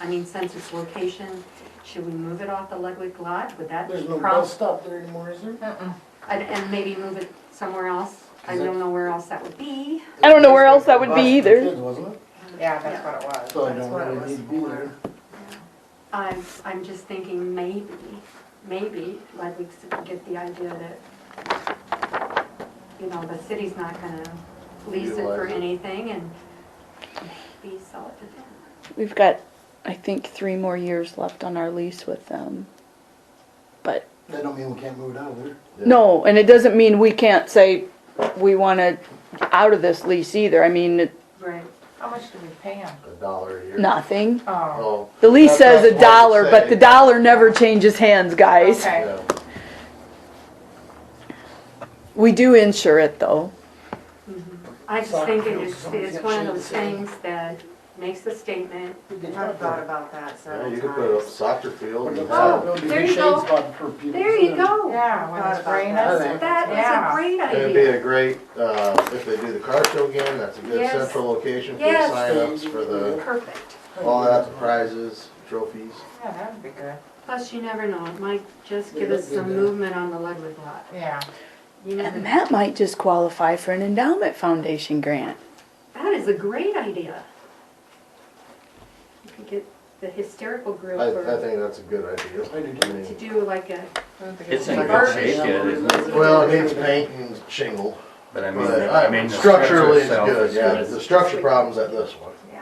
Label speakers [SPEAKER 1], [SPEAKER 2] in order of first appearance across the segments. [SPEAKER 1] I mean, since its location, should we move it off the Ludwig lot? Would that be
[SPEAKER 2] There's no
[SPEAKER 1] problem?
[SPEAKER 2] bus stop there anymore, is there?
[SPEAKER 1] And, and maybe move it somewhere else? I
[SPEAKER 2] Is it-
[SPEAKER 1] don't know where else that would be.
[SPEAKER 3] I don't know where else that would
[SPEAKER 2] Bus for
[SPEAKER 3] be either.
[SPEAKER 2] kids, wasn't it?
[SPEAKER 4] Yeah, that's what it was.
[SPEAKER 2] So I
[SPEAKER 4] That's
[SPEAKER 2] don't
[SPEAKER 4] what it
[SPEAKER 2] really
[SPEAKER 4] was
[SPEAKER 2] need to be
[SPEAKER 4] for.
[SPEAKER 2] there.
[SPEAKER 1] I'm, I'm just thinking maybe, maybe Ludwig could get the idea that, you know, the city's not gonna lease it for
[SPEAKER 5] Utilize it.
[SPEAKER 1] anything and maybe sell it to them.
[SPEAKER 3] We've got, I think, three more years left on our lease with them. But
[SPEAKER 2] That don't mean we can't move it out of there.
[SPEAKER 3] no, and it doesn't mean we can't say we want to out of this lease either. I mean, it-
[SPEAKER 1] Right.
[SPEAKER 4] How much do we pay him?
[SPEAKER 5] A dollar a year.
[SPEAKER 3] nothing.
[SPEAKER 4] Oh,
[SPEAKER 5] Oh,
[SPEAKER 3] The lease
[SPEAKER 5] That's
[SPEAKER 3] says
[SPEAKER 5] what
[SPEAKER 3] a
[SPEAKER 5] I'm
[SPEAKER 3] dollar, but the
[SPEAKER 5] saying.
[SPEAKER 3] dollar never changes hands, guys.
[SPEAKER 4] okay.
[SPEAKER 5] yeah.
[SPEAKER 3] We do insure it though.
[SPEAKER 1] mm-hmm. I just
[SPEAKER 2] Soccer
[SPEAKER 1] think it
[SPEAKER 2] field,
[SPEAKER 1] is,
[SPEAKER 2] someone's
[SPEAKER 1] it's
[SPEAKER 2] got
[SPEAKER 1] one of
[SPEAKER 2] shade
[SPEAKER 1] those
[SPEAKER 2] sitting.
[SPEAKER 1] things that makes a statement.
[SPEAKER 2] We could
[SPEAKER 4] I've
[SPEAKER 2] have
[SPEAKER 4] thought
[SPEAKER 2] that.
[SPEAKER 4] about that
[SPEAKER 5] Yeah,
[SPEAKER 4] several
[SPEAKER 5] you could put up a
[SPEAKER 4] times.
[SPEAKER 5] soccer field. and
[SPEAKER 1] Oh,
[SPEAKER 5] have-
[SPEAKER 2] There'll be
[SPEAKER 1] there
[SPEAKER 2] a
[SPEAKER 1] you
[SPEAKER 2] shade
[SPEAKER 1] go.
[SPEAKER 2] spot for people.
[SPEAKER 1] There you go.
[SPEAKER 4] Yeah, when
[SPEAKER 1] Thought
[SPEAKER 4] it's
[SPEAKER 1] about
[SPEAKER 4] raining.
[SPEAKER 2] that.
[SPEAKER 1] That is a
[SPEAKER 4] Uh, Yeah.
[SPEAKER 1] great
[SPEAKER 5] It'd be
[SPEAKER 1] idea.
[SPEAKER 5] a great, uh, if they do the car show again, that's a good
[SPEAKER 1] Yes.
[SPEAKER 5] central location for the
[SPEAKER 1] Yes.
[SPEAKER 5] signups, for the,
[SPEAKER 1] Perfect.
[SPEAKER 5] all that, the prizes, trophies.
[SPEAKER 4] Yeah, that would be good.
[SPEAKER 1] Plus, you never know, it might just
[SPEAKER 2] They
[SPEAKER 1] give
[SPEAKER 2] look
[SPEAKER 1] us
[SPEAKER 2] good
[SPEAKER 1] some
[SPEAKER 2] there.
[SPEAKER 1] movement on the Ludwig lot.
[SPEAKER 4] Yeah.
[SPEAKER 1] You never
[SPEAKER 3] And
[SPEAKER 1] know.
[SPEAKER 3] that might just qualify for an endowment foundation grant.
[SPEAKER 1] That is a great idea. You could get the hysterical group
[SPEAKER 5] I, I
[SPEAKER 1] or
[SPEAKER 5] think that's a good idea.
[SPEAKER 2] I do
[SPEAKER 1] to
[SPEAKER 2] too.
[SPEAKER 1] do like a,
[SPEAKER 6] It's in
[SPEAKER 1] Garbage.
[SPEAKER 6] good shape yet, isn't it?
[SPEAKER 5] Well, it needs paint and shingle,
[SPEAKER 6] But I mean,
[SPEAKER 5] but,
[SPEAKER 6] I mean,
[SPEAKER 5] uh,
[SPEAKER 6] the
[SPEAKER 5] structurally it's
[SPEAKER 6] itself
[SPEAKER 5] good,
[SPEAKER 6] is
[SPEAKER 5] yeah, the structure problem's at this one,
[SPEAKER 1] yeah.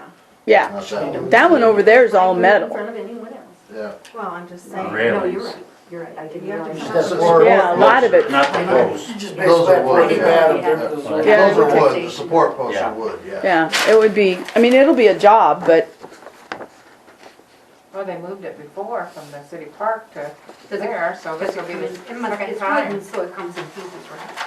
[SPEAKER 3] Yeah,
[SPEAKER 5] not that one,
[SPEAKER 3] that one over there is all
[SPEAKER 1] Like, In
[SPEAKER 3] metal.
[SPEAKER 1] front of anyone else.
[SPEAKER 5] yeah.
[SPEAKER 4] Well, I'm just
[SPEAKER 6] saying-
[SPEAKER 1] No, you're
[SPEAKER 6] Railings.
[SPEAKER 1] right, you're right, I didn't
[SPEAKER 4] You have to
[SPEAKER 1] realize.
[SPEAKER 4] shut
[SPEAKER 1] that.
[SPEAKER 4] the
[SPEAKER 3] Yeah, a lot of it.
[SPEAKER 6] Not the post.
[SPEAKER 2] Just
[SPEAKER 5] Those are
[SPEAKER 2] basically
[SPEAKER 5] wood,
[SPEAKER 2] pretty
[SPEAKER 5] yeah.
[SPEAKER 2] bad up
[SPEAKER 1] Yeah.
[SPEAKER 2] there. Those are-
[SPEAKER 3] Yeah,
[SPEAKER 5] Those are wood, the
[SPEAKER 1] protection.
[SPEAKER 5] support posts
[SPEAKER 6] Yeah.
[SPEAKER 5] are wood, yeah.
[SPEAKER 3] Yeah, it would be, I mean, it'll be a job, but
[SPEAKER 4] Well, they moved it before from the city park to
[SPEAKER 1] it-
[SPEAKER 4] there, so
[SPEAKER 1] Does
[SPEAKER 4] this
[SPEAKER 1] it
[SPEAKER 4] will
[SPEAKER 1] come
[SPEAKER 4] be
[SPEAKER 1] in,
[SPEAKER 4] the
[SPEAKER 1] it must,
[SPEAKER 4] second
[SPEAKER 1] it's
[SPEAKER 4] time.
[SPEAKER 1] wooden, so it comes in pieces, right?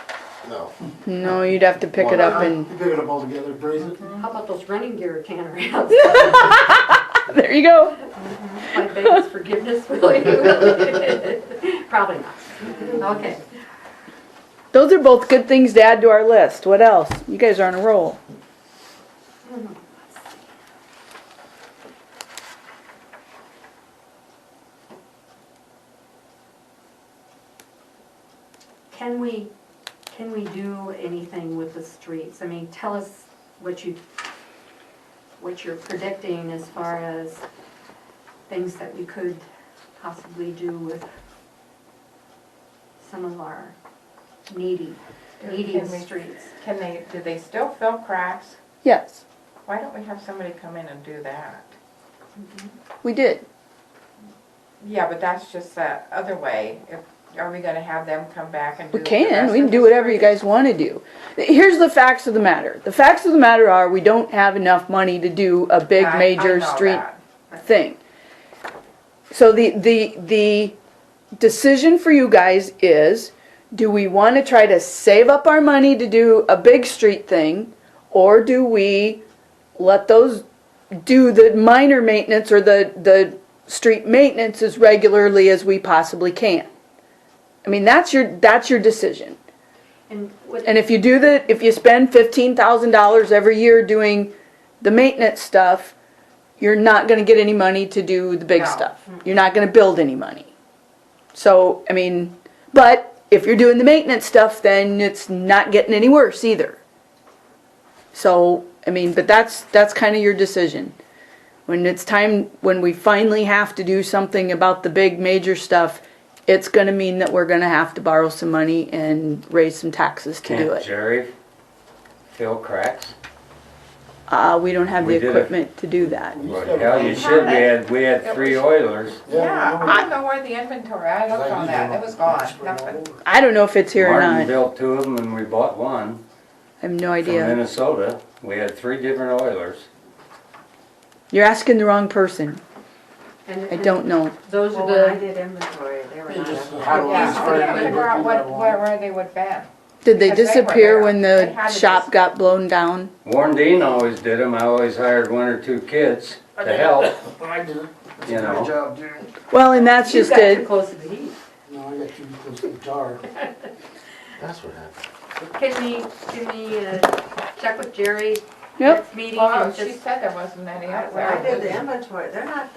[SPEAKER 5] No,
[SPEAKER 3] no, you'd have to pick it up and,
[SPEAKER 2] You pick it up all together, braise it.
[SPEAKER 1] How about those running gear can around?
[SPEAKER 3] there you go.
[SPEAKER 1] My biggest forgiveness, really. Probably not. Okay.
[SPEAKER 3] Those are both good things to add to our list. What else? You guys are on a roll.
[SPEAKER 1] Can we, can we do anything with the streets? I mean, tell us what you, what you're predicting as far as things that we could possibly do with some of our needy, needy
[SPEAKER 4] Can we-
[SPEAKER 1] streets.
[SPEAKER 4] Can they, do they still fill cracks?
[SPEAKER 3] Yes,
[SPEAKER 4] Why don't we have somebody come in and do that?
[SPEAKER 3] we did.
[SPEAKER 4] Yeah, but that's just the other way. If- Are we gonna have them come back and do
[SPEAKER 3] We
[SPEAKER 4] the rest
[SPEAKER 3] can, we can
[SPEAKER 4] of
[SPEAKER 3] do
[SPEAKER 4] the
[SPEAKER 3] whatever you
[SPEAKER 4] street?
[SPEAKER 3] guys want to do. Here's the facts of the matter. The facts of the matter are, we don't have enough money to do a big
[SPEAKER 4] I- I
[SPEAKER 3] major
[SPEAKER 4] know
[SPEAKER 3] street
[SPEAKER 4] that.
[SPEAKER 3] thing. So the, the, the decision for you guys is, do we want to try to save up our money to do a big street thing? Or do we let those do the minor maintenance or the, the street maintenance as regularly as we possibly can? I mean, that's your, that's your decision.
[SPEAKER 1] And what,
[SPEAKER 3] And if you do the, if you spend fifteen thousand dollars every year doing the maintenance stuff, you're not gonna get any money to do the big
[SPEAKER 4] No.
[SPEAKER 3] stuff. You're not gonna build any money. So, I mean, but if you're doing the maintenance stuff, then it's not getting any worse either. So, I mean, but that's, that's kinda your decision. When it's time, when we finally have to do something about the big major stuff, it's gonna mean that we're gonna have to borrow some money and raise some taxes to do
[SPEAKER 6] Can't
[SPEAKER 3] it.
[SPEAKER 6] Jerry fill cracks?
[SPEAKER 3] Uh, we don't have the
[SPEAKER 6] We did it.
[SPEAKER 3] equipment to do that.
[SPEAKER 2] We used to
[SPEAKER 6] Well,
[SPEAKER 2] have
[SPEAKER 6] hell,
[SPEAKER 2] a-
[SPEAKER 6] you should, we had, we had three Oilers.
[SPEAKER 4] Yeah,
[SPEAKER 2] we know.
[SPEAKER 4] I don't know where the inventory, I
[SPEAKER 2] Cause
[SPEAKER 4] looked
[SPEAKER 2] I
[SPEAKER 4] on
[SPEAKER 2] used
[SPEAKER 4] that,
[SPEAKER 2] to
[SPEAKER 4] it was gone,
[SPEAKER 2] spread all
[SPEAKER 4] nothing.
[SPEAKER 2] over.
[SPEAKER 3] I don't know if it's here or
[SPEAKER 6] Martin
[SPEAKER 3] not.
[SPEAKER 6] built two of them and we bought one
[SPEAKER 3] I have no
[SPEAKER 6] from
[SPEAKER 3] idea.
[SPEAKER 6] Minnesota. We had three different Oilers.
[SPEAKER 3] You're asking the wrong person.
[SPEAKER 1] and-
[SPEAKER 3] I don't know.
[SPEAKER 1] Those
[SPEAKER 4] Well,
[SPEAKER 1] are
[SPEAKER 4] when I
[SPEAKER 1] the,
[SPEAKER 4] did inventory, they were
[SPEAKER 2] They
[SPEAKER 4] not
[SPEAKER 2] just
[SPEAKER 4] up
[SPEAKER 2] had
[SPEAKER 4] there.
[SPEAKER 2] all
[SPEAKER 4] Yeah,
[SPEAKER 2] these
[SPEAKER 4] I
[SPEAKER 2] fire
[SPEAKER 4] can't figure out
[SPEAKER 2] hydrants
[SPEAKER 4] what,
[SPEAKER 2] that were
[SPEAKER 4] where, where they would been.
[SPEAKER 3] Did they
[SPEAKER 4] Because they were
[SPEAKER 3] disappear
[SPEAKER 4] there.
[SPEAKER 3] when
[SPEAKER 4] They
[SPEAKER 3] the
[SPEAKER 4] had to
[SPEAKER 3] shop
[SPEAKER 4] dis-
[SPEAKER 3] got blown down?
[SPEAKER 6] Warren Dean always did them. I always hired one or two kids to help,
[SPEAKER 2] I did.
[SPEAKER 6] you
[SPEAKER 2] Good
[SPEAKER 6] know.
[SPEAKER 2] job, dude.
[SPEAKER 3] Well, and that's
[SPEAKER 1] you
[SPEAKER 3] just
[SPEAKER 1] got too
[SPEAKER 3] it.
[SPEAKER 1] close to the heat.
[SPEAKER 2] No, I got too close to the jar.
[SPEAKER 5] that's what happened.
[SPEAKER 1] Can we, can we uh, check with Jerry
[SPEAKER 3] Yep.
[SPEAKER 1] next meeting
[SPEAKER 4] Well,
[SPEAKER 1] and
[SPEAKER 4] she
[SPEAKER 1] just
[SPEAKER 4] said there wasn't any out
[SPEAKER 7] When I
[SPEAKER 4] there.
[SPEAKER 7] did the inventory, they're not